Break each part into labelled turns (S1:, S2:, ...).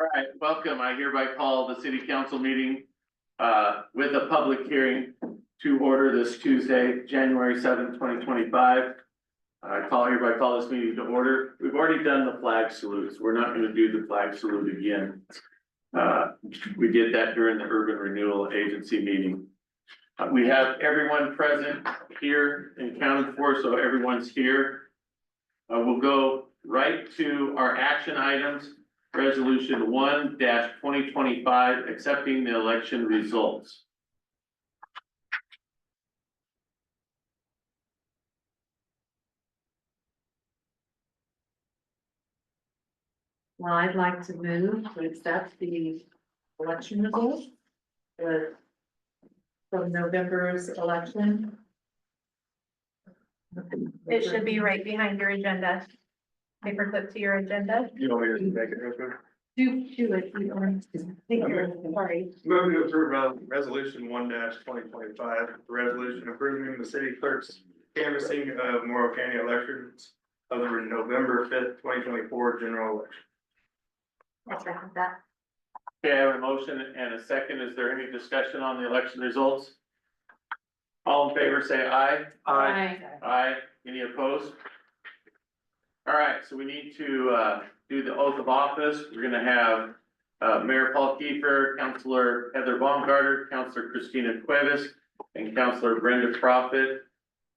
S1: All right, welcome. I hereby call the city council meeting uh, with a public hearing to order this Tuesday, January seventh, twenty twenty-five. I call hereby call this meeting to order. We've already done the flag salutes. We're not gonna do the flag salute again. Uh, We did that during the urban renewal agency meeting. Uh, We have everyone present here and counted for, so everyone's here. Uh, We'll go right to our action items. Resolution one twenty twenty-five, accepting the election results.
S2: Well, I'd like to move to accept the election results. The. From November's election.
S3: It should be right behind your agenda. Paperclip to your agenda.
S1: You want me
S2: to make
S1: it real quick?
S2: Do, do it. you know, thank you, Sorry.
S4: Move to approve res- resolution one twenty twenty-five, resolution approving the city clerk's canvassing of Morrow County elections of the November fifth, twenty twenty-four general election.
S3: I second that.
S1: Okay, I have a motion and a second. Is there any discussion on the election results? All in favor, say aye. Aye. Any opposed? All right, so we need to, uh, do the oath of office. We're gonna have, uh, Mayor Paul Kiefer, Counselor Heather Baumgartner, Counselor Christina Cuevas, and Counselor Brenda Profit.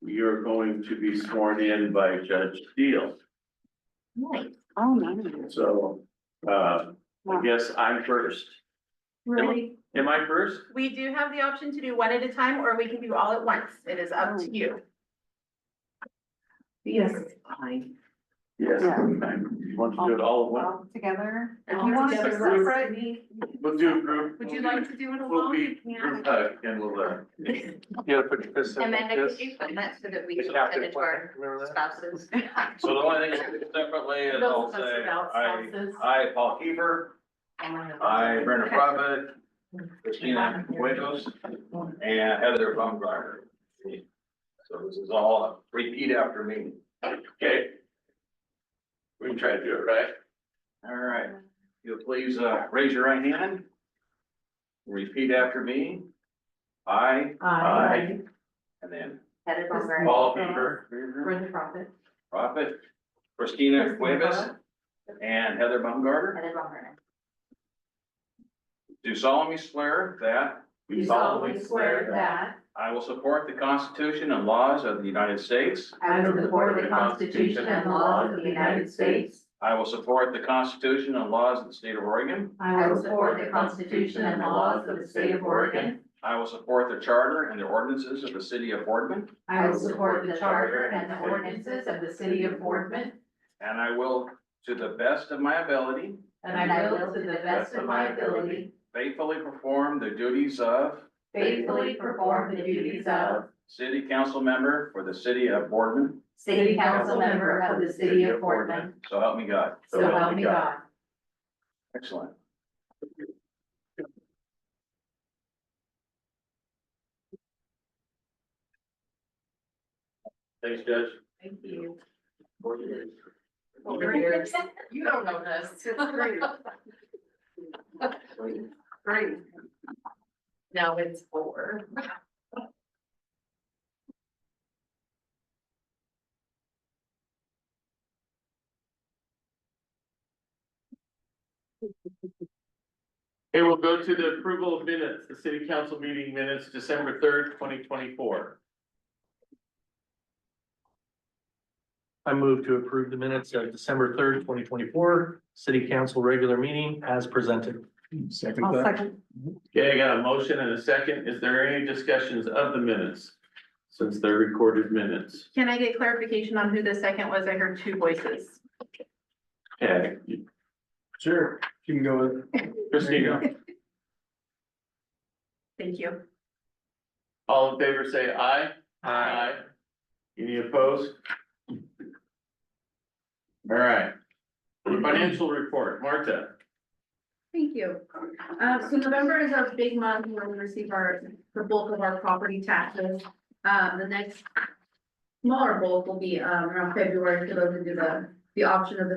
S1: You're going to be sworn in by Judge Steele.
S5: Oh, no.
S1: So, uh, I guess I'm first.
S3: Really,
S1: Am I first?
S3: we do have the option to do one at a time, or we can do all at once. It is up to you.
S2: Yes.
S1: Yes.
S5: Yeah.
S1: You want to do it all at once?
S5: All together.
S2: If
S5: All
S2: you want to
S5: together.
S2: separate
S1: We'll do a group.
S3: Would you like to do it
S1: We'll
S3: alone?
S1: be,
S3: You
S1: group
S3: can.
S1: hug and we'll, uh, you gotta put your fists in
S6: Amanda,
S1: like
S6: could
S1: this.
S6: you put that so that we
S4: The
S6: can
S4: captain
S6: send it to our
S4: plan, remember that?
S6: spouses?
S4: So the only thing separately is I'll
S2: Those of us
S4: say,
S2: without
S4: I,
S2: spouses.
S4: I, Paul Kiefer, I, Brenda Private, Christina Cuevas, and Heather Baumgartner. So this is all repeat after me.
S1: Okay. We can try to do it, right?
S4: All right, you'll please uh, raise your right hand. Repeat after me. I,
S2: Aye.
S4: and then
S6: Heather Bomber.
S4: Paul Bieber,
S2: Brenda Prophet.
S4: Prophet, Christina Cuevas, and Heather Baumgartner.
S6: Heather Bomber.
S4: Do solemnly swear that
S2: You solemnly swear that
S4: I will support the Constitution and laws of the United States.
S2: I will support the Constitution and laws of the United States.
S4: I will support the Constitution and laws of the state of Oregon.
S2: I will support the Constitution and the laws of the state of Oregon.
S4: I will support the charter and the ordinances of the city of Boardman.
S2: I will support the charter and the ordinances of the city of Boardman,
S4: And I will, to the best of my ability,
S2: and I will, to the best of my ability,
S4: faithfully perform the duties of
S2: faithfully perform the duties of
S4: city council member for the city of Boardman.
S2: city council member of the city of Boardman.
S4: So help me God.
S2: So help me God.
S4: Excellent.
S1: Thanks, Judge.
S2: Thank you.
S6: Over here.
S2: You don't know this. Great. Now it's four.
S1: Okay, we'll go to the approval of minutes, the city council meeting minutes, December third, twenty twenty-four.
S7: I move to approve the minutes of December third, twenty twenty-four, city council regular meeting as presented. Second.
S5: I'll second.
S1: Okay, I got a motion and a second. Is there any discussions of the minutes? Since they're recorded minutes.
S3: Can I get clarification on who the second was? I heard two voices.
S1: Okay. you-
S4: Sure, you can go with.
S1: Christina,
S3: Thank you.
S1: all in favor, say aye.
S7: Aye.
S1: Any opposed? All right. Financial report, Marta.
S3: Thank you. Uh, so November is our big month where we receive our, the bulk of our property taxes. Uh, the next smaller bulk will be, um, around February, for those who do the, the option of the